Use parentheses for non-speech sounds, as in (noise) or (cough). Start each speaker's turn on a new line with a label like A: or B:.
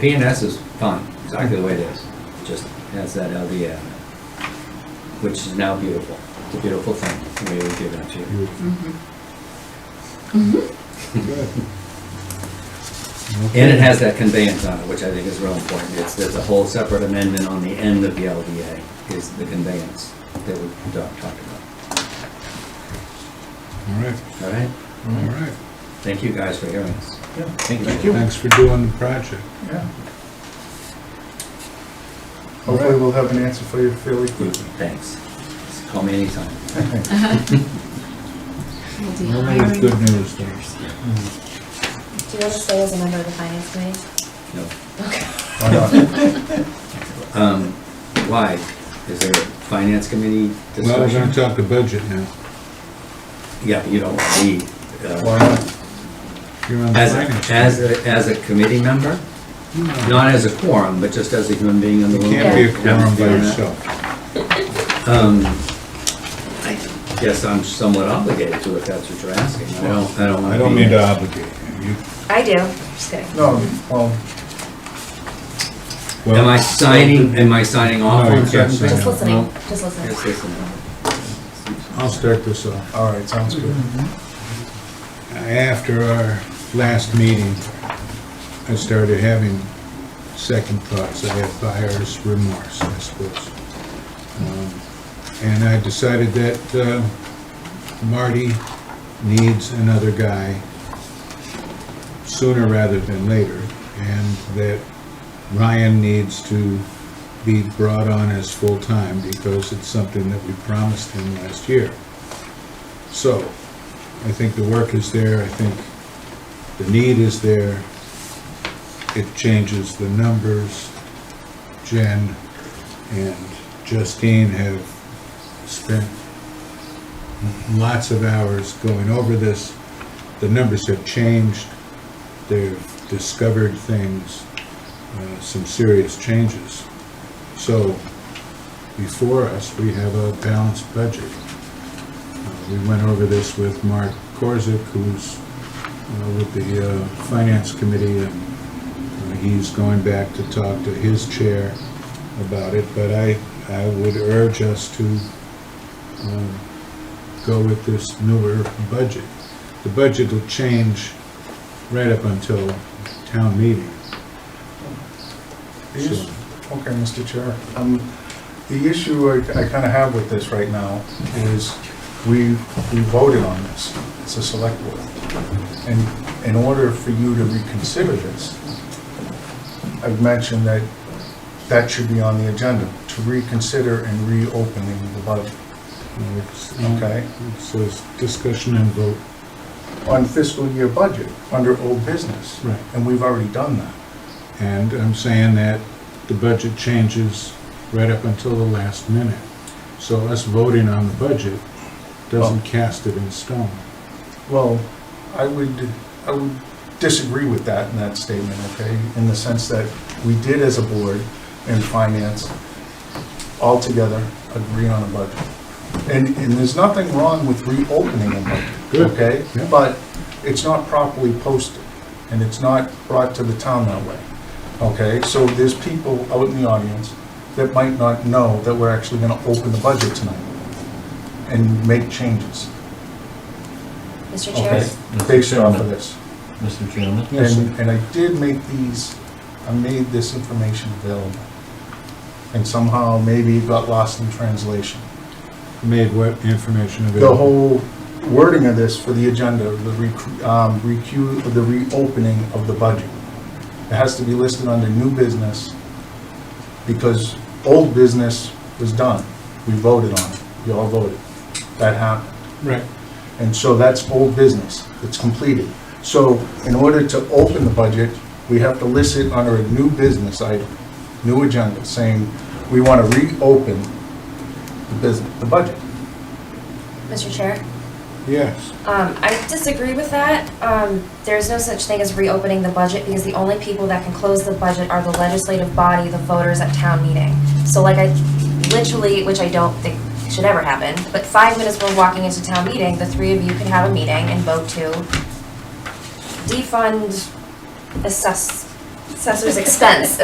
A: PNS is fine, exactly the way it is, just has that LDA on it, which is now beautiful. It's a beautiful thing, the way we've given it to you.
B: Mm-hmm.
C: Mm-hmm.
A: And it has that conveyance on it, which I think is real important. It's, there's a whole separate amendment on the end of the LDA, is the conveyance that we talked talked about.
D: All right,
A: All right?
D: all right.
A: Thank you guys for hearing us.
B: Thank you.
D: Thanks for doing the project.
B: Yeah. Hopefully we'll have an answer for you fairly quickly.
A: Thanks. Just Call me anytime. Mm-hmm.
E: We'll do
D: All right,
E: hiring.
D: good news, though.
C: Do you want to stay as a member of the finance committee?
A: No.
B: (laughs) Why not?
A: Um, why? Is there a finance committee
D: Well, we're gonna
A: discussion?
D: talk the budget now.
A: Yeah, but you don't want me. uh,
B: Why not?
D: You're on the
A: As,
D: finance.
A: a- as, a- as a committee member,
D: No,
A: not as a quorum, but just as a human being in the
D: You
A: room.
D: can't be a
A: Yeah.
D: quorum by
A: Yeah.
D: yourself.
A: Um, I guess I'm somewhat obligated to if that's what you're asking. I don't, I don't want to
D: I don't mean to obligate you. you.
C: I do, just kidding.
B: No, well,
D: well,
A: Am I signing, am I signing off
D: No, you
A: on
D: can't
A: certain things?
D: sign
C: Just listening,
A: Well,
C: just listening.
A: Yes, listening.
D: I'll start this off.
B: all right, sounds good.
D: After our last meeting, I started having second thoughts. I had buyer's remorse, I suppose. Um, And I decided that uh, Marty needs another guy sooner rather than later, and that Ryan needs to be brought on as full-time because it's something that we promised him last year. So, I think the work is there, I think the need is there. It changes the numbers. Jen and Justine have spent lots of hours going over this. The numbers have changed. They've discovered things, uh, some serious changes. So before us, we have a balanced budget. Uh, We went over this with Mark Korzick, who's uh, with the uh, Finance Committee, and uh, he's going back to talk to his chair about it, but I, I would urge us to um, go with this newer budget. The budget will change right up until town meeting.
B: The issue-
D: So-
B: Okay, Mr. Chair, um, the issue I, I kinda have with this right now is we, we voted on this, it's a select board. And in order for you to reconsider this, I've mentioned that that should be on the agenda, to reconsider and reopening the budget.
D: uh, it's-
B: Okay.
D: It's a discussion and vote.
B: on fiscal year budget under old business.
D: Right.
B: And we've already done that.
D: And I'm saying that the budget changes right up until the last minute. So us voting on the budget doesn't
B: Oh.
D: cast it in stone.
B: Well, I would, I would disagree with that in that statement, okay? In the sense that we did as a board and finance all together agree on a budget. And, and there's nothing wrong with reopening a budget,
D: Good.
B: okay?
D: Yeah.
B: But it's not properly posted and it's not brought to the town that way, okay? So there's people out in the audience that might not know that we're actually gonna open the budget tonight and make changes,
C: Mr. Chair,
B: okay? Based off of this.
F: Mr. Chairman?
D: Yes,
B: And, and I did make these, I made this information available. And somehow maybe it got lost in translation.
D: Made what information
B: The
D: available?
B: whole wording of this for the agenda, the recu, um, recu, the reopening of the budget. It has to be listed under new business because old business was done. We voted on it. You all voted. That happened.
D: Right.
B: And so that's old business, it's completed. So in order to open the budget, we have to list it under a new business item, new agenda, saying we want to reopen the business, the budget.
C: Mr. Chair,
D: Yes.
C: um, I disagree with that. Um, there's no such thing as reopening the budget because the only people that can close the budget are the legislative body, the voters at town meeting. So like I, literally, which I don't think should ever happen, but five minutes before walking into town meeting, the three of you can have a meeting and vote to defund, assess assessor's expense